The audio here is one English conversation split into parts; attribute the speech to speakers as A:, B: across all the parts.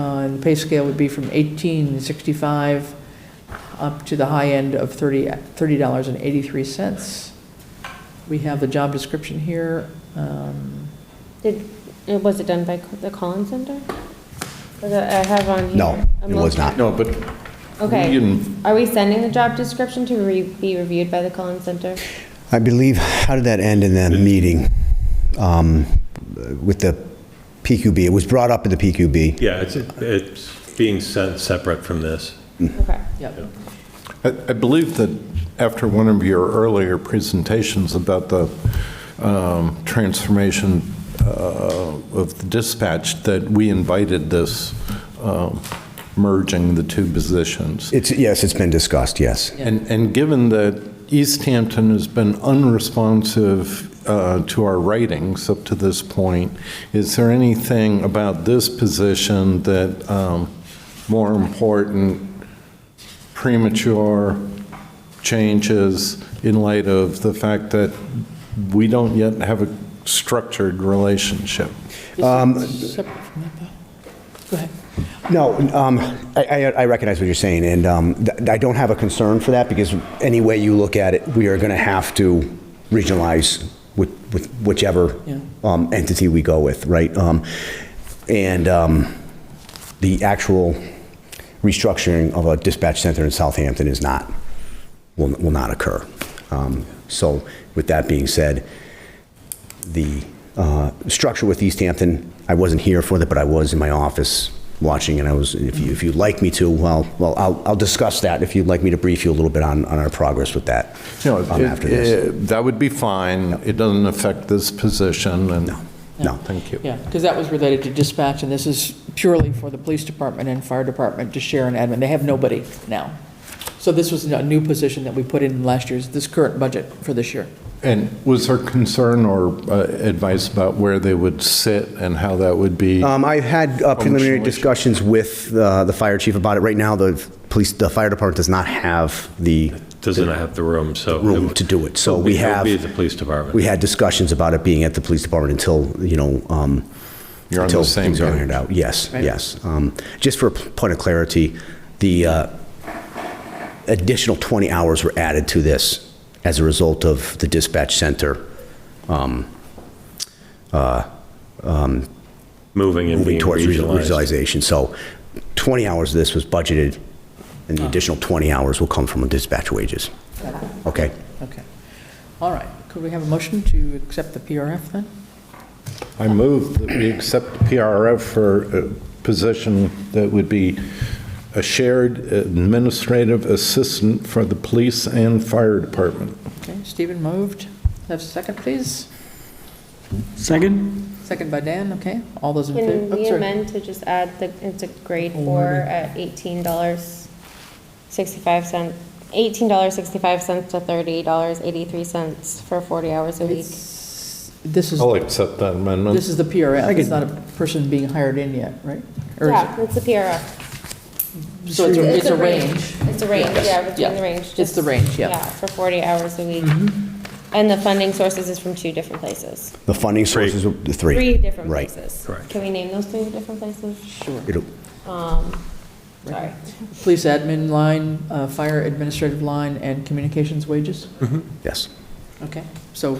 A: Uh, pay scale would be from 1865 up to the high end of 30 $30.83. We have the job description here. Um,
B: Did, uh, was it done by Co- the Collins Center? Was it- I have on here.
C: No,
B: I'm
C: it was
B: looking-
C: not.
D: No, but we
B: Okay.
D: didn't,
B: Are we sending the job description to re- be reviewed by the Collins Center?
C: I believe, how did that end in that meeting um, with the PQB? It was brought up at the PQB.
E: Yeah, it's, it's being sent separate from this.
C: Hmm.
B: Okay.
A: Yep.
D: I I believe that after one of your earlier presentations about the um, transformation uh, of the dispatch, that we invited this um, merging the two positions.
C: It's, yes, it's been discussed, yes.
D: And, and given that East Hampton has been unresponsive uh, to our writings up to this point, is there anything about this position that um, more important, premature changes in light of the fact that we don't yet have a structured relationship?
A: Separate from that, though. Go ahead.
C: No, um, I, I I recognize what you're saying, and um, th- I don't have a concern for that, because any way you look at it, we are going to have to regionalize with with whichever
A: Yeah.
C: um, entity we go with, right? Um, And um, the actual restructuring of a dispatch center in Southampton is not, will will not occur. Um, So with that being said, the uh, structure with East Hampton, I wasn't here for that, but I was in my office watching, and I was, if you, if you'd like me to, well, well, I'll, I'll discuss that if you'd like me to brief you a little bit on, on our progress with that.
D: No,
C: um, after this.
D: that would be fine. It doesn't affect this position, and...
C: No.
D: Thank you.
A: Yeah, because that was related to dispatch, and this is purely for the police department and fire department to share an admin. They have nobody now. So this was a new position that we put in last year's, this current budget for this year.
D: And was there concern or uh, advice about where they would sit and how that would be?
C: Um, I've had uh, preliminary
D: Functional issue.
C: discussions with uh, the fire chief about it. Right now, the police, the fire department does not have the
E: Doesn't have the room, so. it
C: room
E: would-
C: to do it, so we
E: It would
C: have.
E: be the police department.
C: We had discussions about it being at the police department until, you know, um,
D: You're on the
C: until
D: same
C: things are
D: page.
C: ironed out. Yes,
A: Right.
C: yes. Um, Just for a p- point of clarity, the uh, additional 20 hours were added to this as a result of the dispatch center
E: Moving and
C: moving
E: being
C: towards regional-
E: regionalized.
C: regionalization. So 20 hours of this was budgeted, and the additional 20 hours will come from dispatch wages. Okay?
A: Okay. All right. Could we have a motion to accept the PRF then?
D: I move that we accept PRF for a position that would be a shared administrative assistant for the police and fire department.
A: Okay, Stephen moved. Have a second, please?
F: Second?
A: Second by Dan, okay? All those in
B: Can
A: favor? Oh,
B: we
A: sorry.
B: amend to just add the, it's a grade four at eighteen dollars sixty-five cent, eighteen dollars sixty-five cents to thirty dollars eighty-three cents for forty hours a week?
A: It's- This is,
D: I'll accept that
A: this
D: amendment.
A: is the PRF. It's not a person being hired in yet, right? Or is
B: Yeah, it's the PRF.
A: it- So it's a- it's a range.
B: It's a range, yeah,
A: Yeah.
B: between the range.
A: It's
B: just-
A: the range, yeah.
B: Yeah, for forty hours a week.
E: Mm-hmm.
B: And the funding sources is from two different places,
C: The funding sources, were- the three.
B: three different
C: Right.
B: places.
E: Correct.
B: Can we name those three different places? Um,
A: Sure.
C: It'll-
B: Sorry.
A: Police admin line, uh, fire administrative line, and communications wages?
C: Yes.
A: Okay, so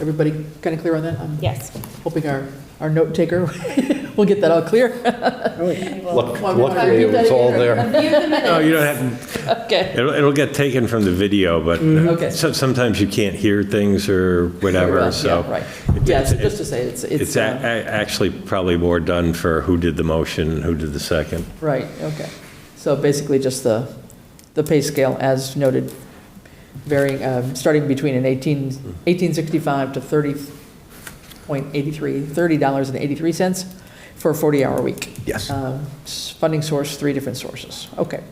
A: everybody kind of clear on that? I'm
B: Yes.
A: hoping our, our note taker will get that all clear.
D: Luck- Luckily, it was all there.
E: No, you don't have,
A: Okay, Mm-hmm.
E: it'll, it'll get taken from the video, but
A: Okay.
E: uh, so- sometimes you can't hear things or
A: Yeah,
E: whatever, so.
A: right.
E: it-
A: Yeah, so
E: it-
A: just to say, it's- it's,
E: It's a-
A: uh,
E: a- actually probably more done for who did the motion, who did the second.
A: right, okay. So basically just the, the pay scale as noted, varying, um, starting between an 18, 1865 to 30.83, $30.83 for a 40-hour week.
C: Yes.
A: Um, s- Funding source, three different sources. Okay.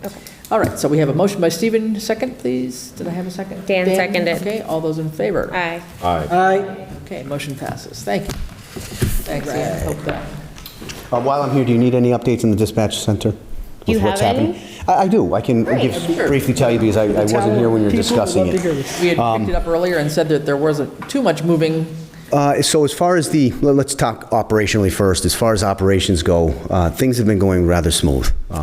A: All right, so we have a motion by Stephen, second, please. Did I have a second?
B: Dan seconded.
A: Okay, all those in favor?
B: Aye.
D: Aye.
F: Aye.
A: Okay, motion passes. Thank you. Thanks, Ann. Hope that.
C: Uh, While I'm here, do you need any updates in the dispatch center?
B: You
C: with what's
B: have
C: happening?
B: any?
C: I I do. I can
A: Great,
C: give-
A: sure.
C: briefly tell you because I I wasn't here when you were discussing it. Um,
A: We had picked it up earlier and said that there wasn't too much moving
C: Uh, So as far as the, let- let's talk operationally first. As far as operations go, uh, things have been going rather smooth.